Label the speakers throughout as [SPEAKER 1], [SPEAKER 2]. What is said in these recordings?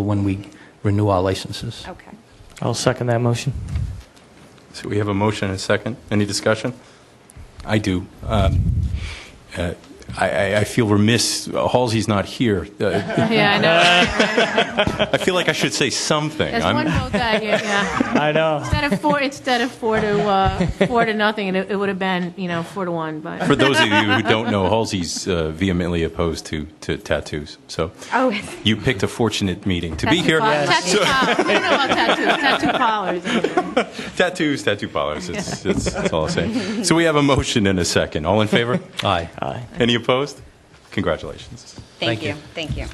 [SPEAKER 1] when we renew our licenses.
[SPEAKER 2] Okay.
[SPEAKER 3] I'll second that motion.
[SPEAKER 4] So we have a motion and a second. Any discussion? I do. Um, uh, I- I I feel remiss, Halsey's not here. Uh,
[SPEAKER 5] Yeah, I know.
[SPEAKER 4] I feel like I should say something.
[SPEAKER 5] There's
[SPEAKER 4] I'm-
[SPEAKER 5] one vote that year, yeah.
[SPEAKER 3] I know.
[SPEAKER 5] Instead of four, instead of four to, uh, four to nothing, and it, it would have been, you know, four to one,
[SPEAKER 4] For
[SPEAKER 5] but.
[SPEAKER 4] those of you who don't know, Halsey's uh, vehemently opposed to to tattoos, so
[SPEAKER 2] Oh,
[SPEAKER 4] you picked a fortunate meeting to be
[SPEAKER 5] Tattoo
[SPEAKER 4] here.
[SPEAKER 5] parlor- Tattoo parlor. I don't know about tattoos, tattoo parlors. I mean.
[SPEAKER 4] Tattoos, tattoo parlors, it's- it's- that's all I'll say. So we have a motion and a second. All in favor?
[SPEAKER 1] Aye.
[SPEAKER 3] Aye.
[SPEAKER 4] Any opposed? Congratulations.
[SPEAKER 1] Thank
[SPEAKER 2] thank you,
[SPEAKER 1] you.
[SPEAKER 2] thank you.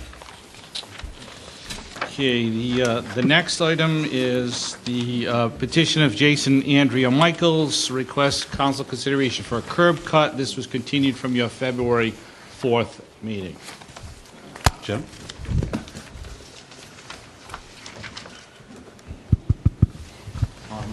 [SPEAKER 6] Okay, the, uh, the next item is the uh, petition of Jason Andrea Michaels, request council consideration for a curb cut. This was continued from your February 4th meeting.
[SPEAKER 4] Jim?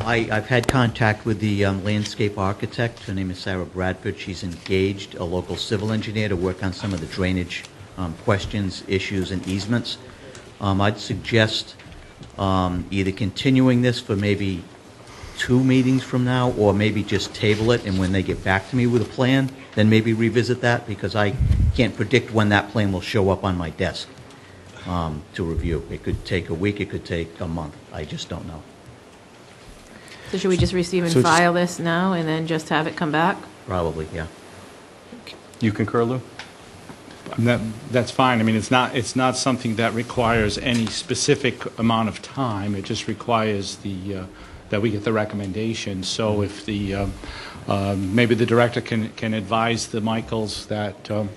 [SPEAKER 7] I, I've had contact with the um, landscape architect. Her name is Sarah Bradford. She's engaged a local civil engineer to work on some of the drainage um, questions, issues, and easements. Um, I'd suggest um, either continuing this for maybe two meetings from now, or maybe just table it, and when they get back to me with a plan, then maybe revisit that, because I can't predict when that plan will show up on my desk um, to review. It could take a week, it could take a month. I just don't know.
[SPEAKER 5] So should we just receive and
[SPEAKER 3] So just-
[SPEAKER 5] file this now and then just have it come back?
[SPEAKER 7] Probably, yeah.
[SPEAKER 4] You concur, Lou?
[SPEAKER 6] And that, that's fine, I mean, it's not, it's not something that requires any specific amount of time, it just requires the, uh, that we get the recommendation. So if the, um, um, maybe the director can, can advise the Michaels that um,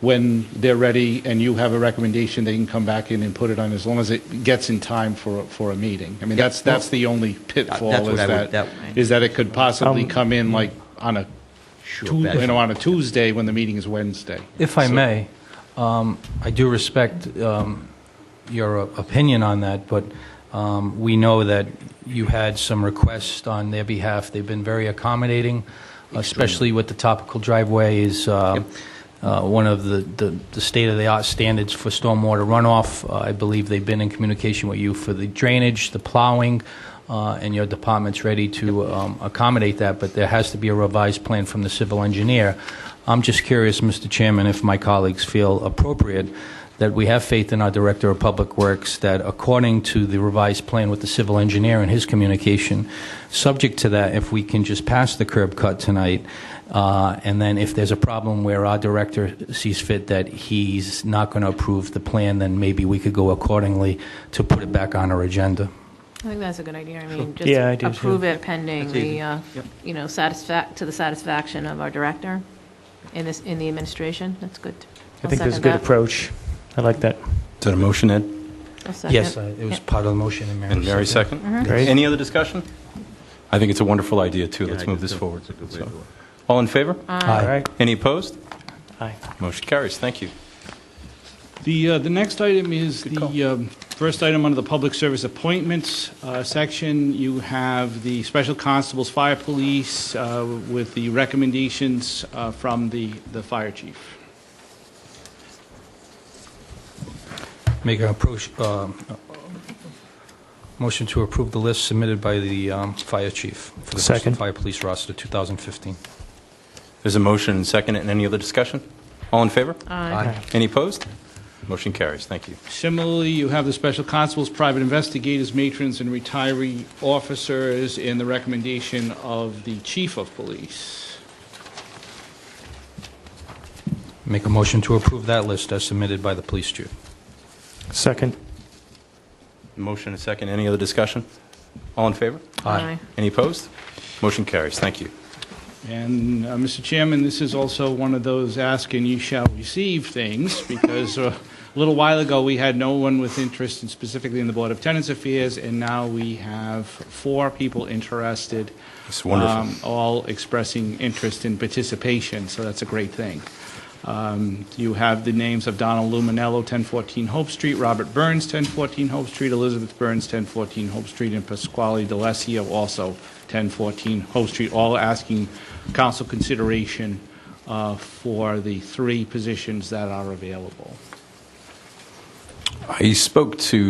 [SPEAKER 6] when they're ready and you have a recommendation, they can come back in and put it on, as long as it gets in time for, a- for a meeting. I mean, that's, that's the only
[SPEAKER 7] That's
[SPEAKER 6] pitfall,
[SPEAKER 7] what
[SPEAKER 6] is
[SPEAKER 7] I
[SPEAKER 6] that,
[SPEAKER 7] would- that-
[SPEAKER 6] is that it could possibly
[SPEAKER 3] Um,
[SPEAKER 6] come in like on a, Tu-
[SPEAKER 7] Sure,
[SPEAKER 6] you know,
[SPEAKER 7] better.
[SPEAKER 6] on a Tuesday when the meeting is Wednesday.
[SPEAKER 1] If I
[SPEAKER 6] So-
[SPEAKER 1] may, um, I do respect um, your opinion on that, but um, we know that you had some requests on their behalf. They've been very accommodating, especially with the topical driveway is um, uh, one of the- the the state-of-the-art standards for stormwater runoff. Uh, I believe they've been in communication with you for the drainage, the plowing, uh, and your department's ready to um, accommodate that, but there has to be a revised plan from the civil engineer. I'm just curious, Mr. Chairman, if my colleagues feel appropriate that we have faith in our Director of Public Works that according to the revised plan with the civil engineer and his communication, subject to that, if we can just pass the curb cut tonight, uh, and then if there's a problem where our director sees fit that he's not going to approve the plan, then maybe we could go accordingly to put it back on our agenda.
[SPEAKER 5] I think that's a good idea. I mean,
[SPEAKER 3] Yeah, I
[SPEAKER 5] just
[SPEAKER 3] do, too.
[SPEAKER 5] approve it pending
[SPEAKER 7] That's
[SPEAKER 5] the,
[SPEAKER 7] easy.
[SPEAKER 5] uh,
[SPEAKER 7] Yep.
[SPEAKER 5] you know, satisfac, to the satisfaction of our director in this, in the administration. That's good.
[SPEAKER 3] I
[SPEAKER 5] I'll
[SPEAKER 3] think that's a
[SPEAKER 5] second
[SPEAKER 3] good
[SPEAKER 5] that.
[SPEAKER 3] approach. I like that.
[SPEAKER 4] Is that a motion, Ed?
[SPEAKER 5] I'll second
[SPEAKER 1] Yes, uh, it was
[SPEAKER 5] Yeah.
[SPEAKER 1] part of the motion, and Mary.
[SPEAKER 4] And Mary second?
[SPEAKER 7] Mm-hmm.
[SPEAKER 3] Great.
[SPEAKER 4] Any other discussion? I think it's a wonderful idea, too.
[SPEAKER 7] Yeah,
[SPEAKER 4] Let's
[SPEAKER 7] I
[SPEAKER 4] move
[SPEAKER 7] do
[SPEAKER 4] this
[SPEAKER 7] too.
[SPEAKER 4] forward.
[SPEAKER 7] It's a good way
[SPEAKER 4] So-
[SPEAKER 7] to do it.
[SPEAKER 4] All in favor?
[SPEAKER 3] All
[SPEAKER 1] Aye.
[SPEAKER 3] right.
[SPEAKER 4] Any opposed?
[SPEAKER 3] Aye.
[SPEAKER 4] Motion carries. Thank you.
[SPEAKER 6] The, uh, the next item is
[SPEAKER 4] Good call.
[SPEAKER 6] the um, first item under the Public Service Appointments uh, section. You have the Special Constables, Fire Police, uh, with the recommendations uh, from the, the Fire Chief.
[SPEAKER 1] Make an approach, um, uh, motion to approve the list submitted by the um, fire chief for the Bristol
[SPEAKER 3] Second.
[SPEAKER 1] Fire Police roster 2015.
[SPEAKER 4] There's a motion and second, and any other discussion? All in favor?
[SPEAKER 5] Aye.
[SPEAKER 4] Any opposed? Motion carries. Thank you.
[SPEAKER 6] Similarly, you have the Special Constables, Private Investigators, Matrons, and Retiree Officers, and the recommendation of the Chief of Police.
[SPEAKER 1] Make a motion to approve that list as submitted by the police chief.
[SPEAKER 3] Second.
[SPEAKER 4] Motion and second, any other discussion? All in favor?
[SPEAKER 5] Aye.
[SPEAKER 4] Any opposed? Motion carries. Thank you.
[SPEAKER 6] And, uh, Mr. Chairman, this is also one of those ask and you shall receive things, because uh, a little while ago, we had no one with interest, and specifically in the Board of Tenants Affairs, and now we have four people interested.
[SPEAKER 4] It's wonderful.
[SPEAKER 6] um, All expressing interest in participation, so that's a great thing. Um, You have the names of Donald Luminello, 1014 Hope Street, Robert Burns, 1014 Hope Street, Elizabeth Burns, 1014 Hope Street, and Pasquale DeLassio, also 1014 Hope Street, all asking council consideration uh, for the three positions that are available.
[SPEAKER 4] I spoke to